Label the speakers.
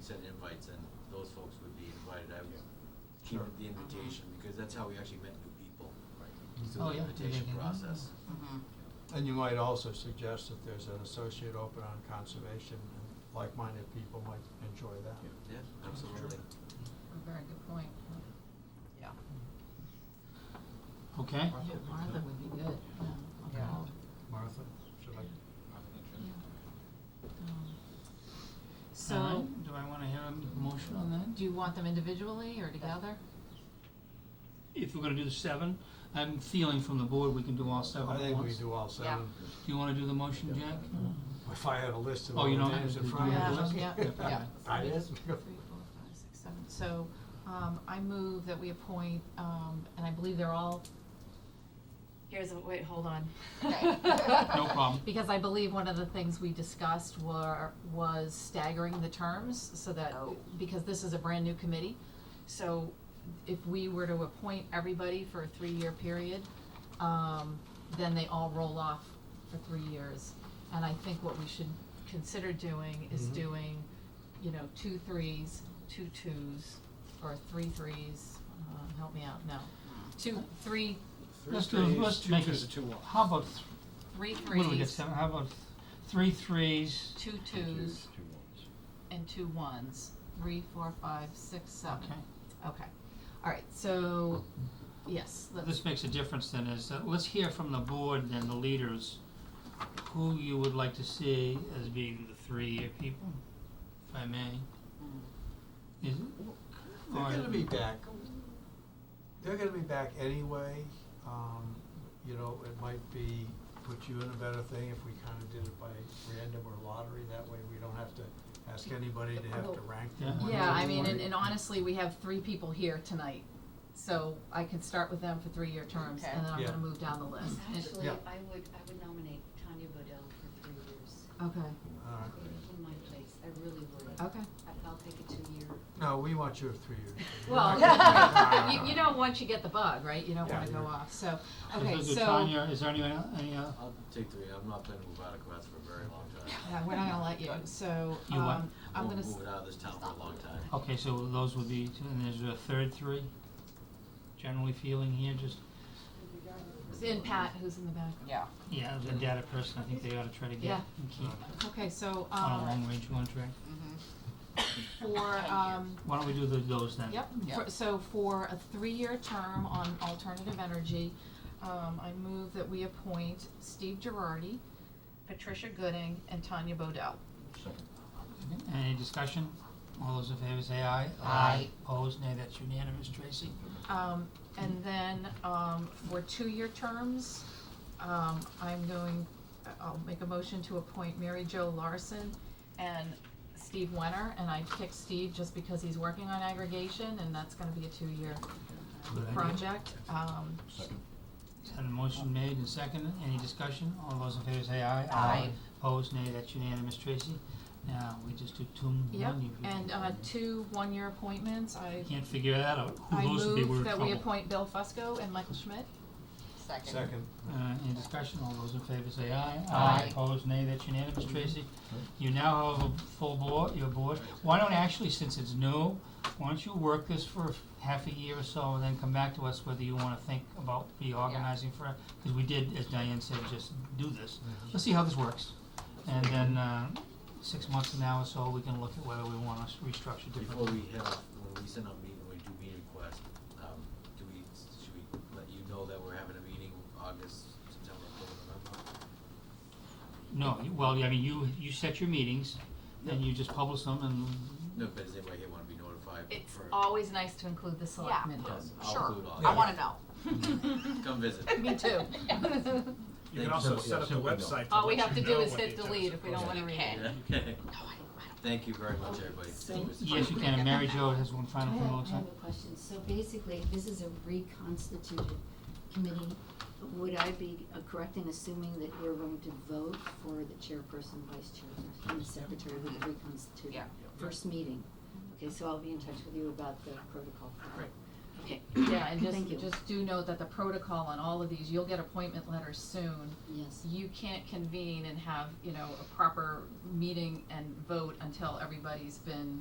Speaker 1: send invites and those folks would be invited, I would
Speaker 2: Yeah.
Speaker 1: keep
Speaker 2: Sure.
Speaker 1: the invitation, because that's how we actually met new people. Right.
Speaker 3: Oh,
Speaker 1: Through the
Speaker 3: yeah.
Speaker 1: invitation
Speaker 3: Mhm.
Speaker 1: process.
Speaker 4: Mhm.
Speaker 3: Mm-hmm.
Speaker 2: And you might also suggest that there's an associate open on conservation, and like-minded people might enjoy that.
Speaker 1: Yeah, absolutely.
Speaker 4: Very good point. Yeah.
Speaker 3: Okay.
Speaker 4: Yeah, Martha would be good, yeah. on
Speaker 3: Yeah.
Speaker 4: all.
Speaker 2: Martha, should I?
Speaker 4: Yeah. Um,
Speaker 3: Alright,
Speaker 4: So,
Speaker 3: Do I wanna have a motion on that?
Speaker 4: do you want them individually or together?
Speaker 3: If we're gonna do the seven, I'm feeling from the board, we can do all seven
Speaker 2: I
Speaker 3: at
Speaker 2: think we
Speaker 3: once.
Speaker 2: do all seven.
Speaker 3: Do you wanna do the motion, Jack?
Speaker 2: If I had a list of
Speaker 3: Oh,
Speaker 2: all the
Speaker 3: you don't
Speaker 2: names
Speaker 3: have
Speaker 2: in
Speaker 3: to
Speaker 2: front
Speaker 3: do
Speaker 2: of
Speaker 3: all
Speaker 2: us.
Speaker 3: Yeah,
Speaker 4: yeah, yeah.
Speaker 2: I did.
Speaker 4: Three, four, five, six, seven. So, um, I move that we appoint, um, and I believe they're all, here's, a- wait, hold on.
Speaker 5: Okay.
Speaker 3: No problem.
Speaker 4: Because I believe one of the things we discussed were, was staggering the terms so that,
Speaker 5: Oh.
Speaker 4: because this is a brand-new committee. So if we were to appoint everybody for a three-year period, um, then they all roll off for three years. And I think what we should consider doing is
Speaker 3: Mm-hmm.
Speaker 2: Mhm.
Speaker 4: doing, you know, two threes, two twos, or three threes, um, help me out, no. Two, three,
Speaker 3: Let's do, let's make it, how about, th-
Speaker 4: three
Speaker 3: what do we get,
Speaker 4: threes,
Speaker 3: seven, how about th- three threes?
Speaker 4: two twos, and two ones, three, four, five, six, seven.
Speaker 3: Okay.
Speaker 4: Okay, all right, so, yes, let's,
Speaker 3: This makes a difference then, is that, let's hear from the board and the leaders, who you would like to see as being the three-year people, if I may. Mm. Is it?
Speaker 2: They're
Speaker 3: or-
Speaker 2: gonna be back, they're gonna be back anyway, um, you know, it might be, put you in a better thing if we kinda did it by random or lottery, that way we don't have to ask anybody to have to rank them.
Speaker 3: Yeah.
Speaker 2: one
Speaker 4: yeah,
Speaker 2: to
Speaker 4: I mean,
Speaker 2: one.
Speaker 4: and, and honestly, we have three people here tonight, so I can start with them for three-year terms, and then I'm
Speaker 2: Okay.
Speaker 4: gonna
Speaker 2: Yeah.
Speaker 4: move down the list. And-
Speaker 5: Actually,
Speaker 2: Yeah.
Speaker 5: I would, I would nominate Tanya Bodell for three years
Speaker 4: Okay,
Speaker 2: Alright.
Speaker 5: in my place. I really would.
Speaker 4: okay.
Speaker 5: I- I'll take a two-year.
Speaker 2: No, we want you at three years.
Speaker 4: Well, you, you know, once you get the bug, right, you don't wanna
Speaker 2: Yeah.
Speaker 4: go off, so,
Speaker 3: So
Speaker 4: okay,
Speaker 3: those are
Speaker 4: so.
Speaker 3: Tanya, is there anyone, el- any, uh,
Speaker 1: I'll take three, I'm not planning to move out of Cohasset for a very long time.
Speaker 4: Yeah, we're not gonna let you, so,
Speaker 3: You what?
Speaker 4: um, I'm
Speaker 1: Won't
Speaker 4: gonna, s-
Speaker 1: Move it out of this town for a long time.
Speaker 3: okay, so those would be, two, and there's a third three? Generally feeling here, just,
Speaker 4: and Pat, who's in the back.
Speaker 5: Yeah.
Speaker 3: yeah, the data person, I think they ought to try to get
Speaker 4: Yeah.
Speaker 3: and keep
Speaker 4: Okay, so,
Speaker 3: on a
Speaker 4: um,
Speaker 3: long-range contract.
Speaker 4: for, um,
Speaker 3: Why don't we do the, those then?
Speaker 4: Yep, for, so for a three-year term on alternative energy, um, I move that we appoint Steve Girardi, Patricia Gooding, and Tanya Bodell.
Speaker 3: Any discussion? All those in favor say aye.
Speaker 4: Aye.
Speaker 3: Opposed, nay, that's unanimous, Tracy.
Speaker 4: Um, and then, um, for two-year terms, um, I'm going, I'll make a motion to appoint Mary Jo Larson and Steve Wenner, and I picked Steve just because he's working on aggregation, and that's gonna be a two-year
Speaker 3: Good idea.
Speaker 4: project. Um,
Speaker 3: And a motion made and seconded, any discussion? All those in favor say aye.
Speaker 4: Aye.
Speaker 3: Opposed, nay, that's unanimous, Tracy. Now, we just do two, one, you
Speaker 4: Yep,
Speaker 3: people.
Speaker 4: and, uh, two one-year appointments, I
Speaker 3: Can't figure that out,
Speaker 4: I
Speaker 3: who those would be, we're in
Speaker 4: move that we
Speaker 3: trouble.
Speaker 4: appoint Bill Fusco and Michael Schmidt.
Speaker 2: Second,
Speaker 3: Uh, any discussion, all those in favor say aye.
Speaker 4: Aye.
Speaker 3: Opposed, nay, that's unanimous, Tracy. You now have a full board, your board, why don't actually, since it's new, why don't you work this for half a year or so, and then come back to us whether you wanna think about reorganizing for, cause we did, as Diane said, just do this. Let's see how this works, and then, uh, six months from now or so, we can look at whether we wanna s- restructure
Speaker 1: Before
Speaker 3: differently.
Speaker 1: we head off, when we send out meeting, when we do meeting requests, um, do we, should we let you know that we're having a meeting August, September, October, November?
Speaker 3: No, you- well, I mean, you, you set your meetings, and you just publish them, and
Speaker 1: No, but does anybody here wanna be notified
Speaker 4: It's
Speaker 1: for?
Speaker 4: always nice to include the selectmen.
Speaker 1: Yes,
Speaker 5: Sure.
Speaker 1: I'll include all.
Speaker 2: I
Speaker 1: you.
Speaker 2: wanna
Speaker 5: know.
Speaker 1: Come visit.
Speaker 4: Me too.
Speaker 6: You
Speaker 1: Thank
Speaker 6: can also set up the website to
Speaker 4: All we
Speaker 6: let
Speaker 4: have
Speaker 6: you
Speaker 4: to do
Speaker 6: know
Speaker 4: is
Speaker 6: what
Speaker 4: hit
Speaker 6: the
Speaker 4: delete
Speaker 6: attendance
Speaker 4: if we don't
Speaker 6: is.
Speaker 4: wanna read it.
Speaker 1: Yeah. Thank you very much, everybody. It was fun.
Speaker 3: Yes, you can, and Mary Jo has one
Speaker 5: I
Speaker 3: final thing, it
Speaker 5: have, I
Speaker 3: looks like.
Speaker 5: have a question. So basically, this is a reconstituted committee. Would I be uh, correct in assuming that you're going to vote for the chairperson, vice chairperson, and the secretary of the reconstituted? First meeting. Okay, so I'll be in touch with you about the protocol.
Speaker 1: Great.
Speaker 5: Okay.
Speaker 4: Yeah, and
Speaker 5: Thank you.
Speaker 4: just, just do note that the protocol on all of these, you'll get appointment letters soon.
Speaker 5: Yes.
Speaker 4: You can't convene and have, you know, a proper meeting and vote until everybody's been